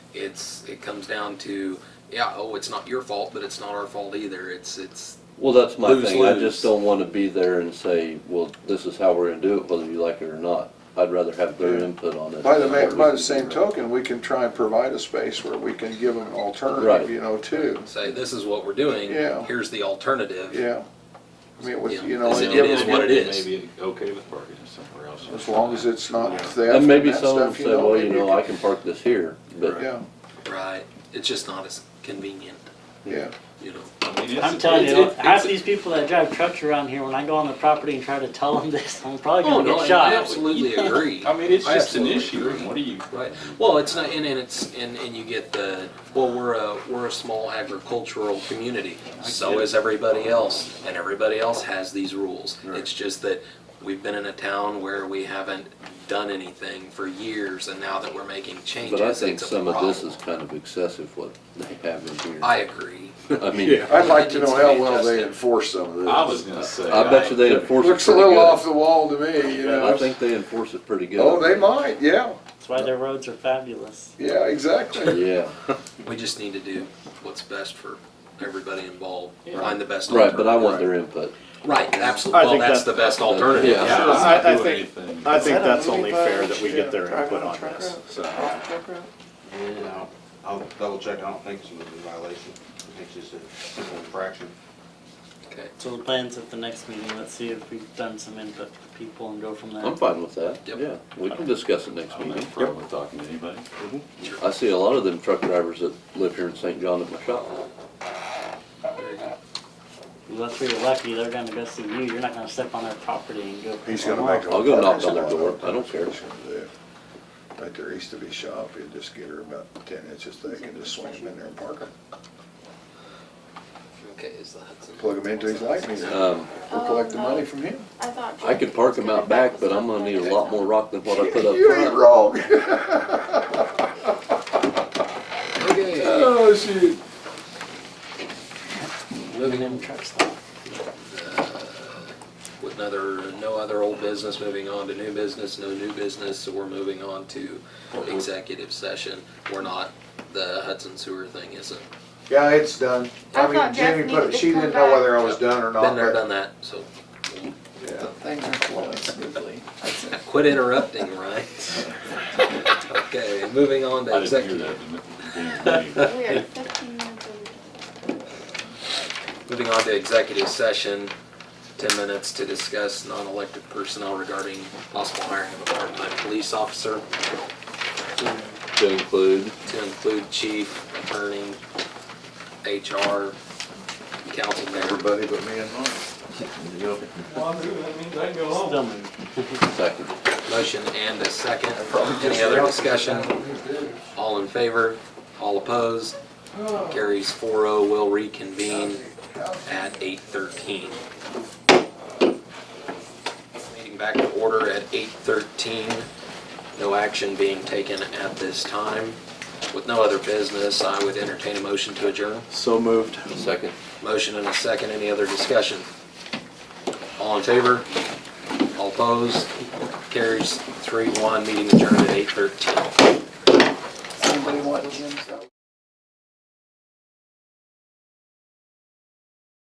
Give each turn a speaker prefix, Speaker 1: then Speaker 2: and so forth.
Speaker 1: it's, it comes down to, yeah, oh, it's not your fault, but it's not our fault either. It's, it's,
Speaker 2: Well, that's my
Speaker 1: Lose,
Speaker 2: thing. I
Speaker 1: lose.
Speaker 2: just don't want to be there and say, well, this is how we're gonna do it, whether you like it or not. I'd rather have their input on it.
Speaker 3: By the,
Speaker 2: Or
Speaker 3: ma-
Speaker 2: we
Speaker 3: by
Speaker 2: can
Speaker 3: the same
Speaker 2: do
Speaker 3: token, we can try and provide a space where we can give them an
Speaker 2: Right.
Speaker 3: alternative, you know, too.
Speaker 1: say, this is what we're doing.
Speaker 3: Yeah.
Speaker 1: Here's the alternative.
Speaker 3: Yeah. I mean, with,
Speaker 1: Yeah.
Speaker 3: you know,
Speaker 1: Is
Speaker 3: and
Speaker 1: it-
Speaker 3: give
Speaker 1: is
Speaker 3: them-
Speaker 1: what it is.
Speaker 4: Maybe okay with parking it somewhere else.
Speaker 3: as long as it's not theft
Speaker 2: it. And
Speaker 3: and
Speaker 2: maybe
Speaker 3: that
Speaker 2: someone
Speaker 3: stuff, you
Speaker 2: say,
Speaker 3: know.
Speaker 2: well, you
Speaker 3: maybe
Speaker 2: know, I can park this here, but
Speaker 3: Yeah,
Speaker 1: Right. It's just not as convenient,
Speaker 3: yeah.
Speaker 1: you know?
Speaker 5: I'm telling you, half these people that drive trucks around here, when I go on the property and try to tell them this, I'm probably
Speaker 1: Oh,
Speaker 5: gonna
Speaker 1: no, and
Speaker 5: get
Speaker 1: I
Speaker 5: shot.
Speaker 1: absolutely agree.
Speaker 4: I mean, it's
Speaker 1: I
Speaker 4: just an
Speaker 1: absolutely
Speaker 4: issue,
Speaker 1: agree.
Speaker 4: and what do you?
Speaker 1: Right. Well, it's not, and, and it's, and, and you get the, well, we're a, we're a small agricultural community. So is everybody else, and everybody else has these rules. It's just that we've been in a town where we haven't done anything for years, and now that we're making changes,
Speaker 2: but I think
Speaker 1: it's a
Speaker 2: some of this is
Speaker 1: problem.
Speaker 2: kind of excessive what they have in here.
Speaker 1: I agree.
Speaker 2: I mean,
Speaker 3: I'd like
Speaker 1: It
Speaker 3: to
Speaker 1: needs
Speaker 3: know
Speaker 1: to
Speaker 3: how
Speaker 1: be
Speaker 3: well they
Speaker 1: adjusted.
Speaker 3: enforce some of this.
Speaker 4: I was gonna say.
Speaker 2: I bet you they enforce it
Speaker 3: Looks a
Speaker 2: pretty
Speaker 3: little off
Speaker 2: good.
Speaker 3: the wall to me, you know.
Speaker 2: I think they enforce it pretty good.
Speaker 3: Oh, they might, yeah,
Speaker 5: That's why their roads are fabulous.
Speaker 3: yeah, exactly.
Speaker 2: Yeah,
Speaker 1: We just need to do what's best for everybody involved,
Speaker 4: Yeah.
Speaker 1: find the best
Speaker 2: right, but I
Speaker 1: alternative.
Speaker 2: want their input.
Speaker 1: Right,
Speaker 6: I
Speaker 1: absolutely. Well,
Speaker 6: think
Speaker 1: that's
Speaker 6: that-
Speaker 1: the best alternative.
Speaker 2: Yeah.
Speaker 4: Yeah,
Speaker 6: Sure,
Speaker 4: I'm
Speaker 6: I-
Speaker 4: not
Speaker 6: I
Speaker 4: doing
Speaker 6: think-
Speaker 4: anything,
Speaker 6: I think
Speaker 7: Is that a
Speaker 6: that's only
Speaker 7: movie
Speaker 6: fair
Speaker 7: badge?
Speaker 6: that we
Speaker 7: Yeah,
Speaker 6: get their
Speaker 7: drive
Speaker 6: input
Speaker 7: a
Speaker 6: on
Speaker 7: truck
Speaker 6: this.
Speaker 7: route.
Speaker 4: so.
Speaker 7: Drive a truck route.
Speaker 8: I'll, I'll double check, I don't think it's a moving violation, I think it's just a simple infraction.
Speaker 1: Okay.
Speaker 5: So the plan's at the next meeting, let's see if we've done some input for people and go from there.
Speaker 2: I'm fine with that.
Speaker 1: Yep.
Speaker 2: Yeah, we can discuss it next
Speaker 4: I'm not
Speaker 2: meeting.
Speaker 4: afraid of talking to anybody.
Speaker 2: I see a lot of them truck drivers that live here in St. John at my shop.
Speaker 1: Very good.
Speaker 5: Unless we were lucky, they're gonna go see you, you're not gonna step on their property and go.
Speaker 3: He's gonna make a.
Speaker 2: I'll go knock on their door. I don't care.
Speaker 3: Right there east of his shop, you just get her about ten inches thick and just swing them in there and park them.
Speaker 1: Okay, is the Hudson?
Speaker 3: Plug them into his light meter.
Speaker 2: Um,
Speaker 3: We'll collect the money from him.
Speaker 7: I thought.
Speaker 2: I could park them out back, but I'm gonna need a lot more rock than what I put up
Speaker 3: You ain't
Speaker 2: front.
Speaker 3: wrong.
Speaker 1: Okay,
Speaker 3: Oh, shoot.
Speaker 5: Moving in trucks.
Speaker 1: with another, no other old business, moving on to new business, no new business, so we're moving on to executive session. We're not, the Hudson sewer thing isn't,
Speaker 8: Yeah, it's done.
Speaker 7: I
Speaker 8: I
Speaker 7: thought
Speaker 8: mean,
Speaker 7: Jeff
Speaker 8: Jamie put,
Speaker 7: needed
Speaker 8: it-
Speaker 7: to
Speaker 8: she
Speaker 7: come
Speaker 8: didn't know whether I
Speaker 1: back.
Speaker 8: was done or not.
Speaker 1: been there,
Speaker 8: but-
Speaker 1: done that, so.
Speaker 8: Yeah.
Speaker 7: Things are flowing smoothly. That's it.
Speaker 1: Quit interrupting, Ryan. Okay, moving on to
Speaker 4: I didn't hear
Speaker 1: executive,
Speaker 4: that. in the beginning of the meeting.
Speaker 7: We are fifteen minutes over.
Speaker 1: moving on to executive session, ten minutes to discuss non-elected personnel regarding possible hiring of a part-time police officer.
Speaker 2: To include,
Speaker 1: to include chief, attorney, HR, council member.
Speaker 3: Everybody but me and mine.
Speaker 5: Still moving.
Speaker 2: second.
Speaker 1: Motion and a second. Any other discussion? All in favor? All opposed? Carries 4-0. Will reconvene at 8:13. Meeting back to order at 8:13. No action being taken at this time. With no other business, I would entertain a motion to adjourn.
Speaker 6: So moved.
Speaker 2: Second.
Speaker 1: Motion and a second, any other discussion? All in favor? All opposed? Carries three one, meeting adjourned at eight thirteen.
Speaker 8: Somebody want Jim's out.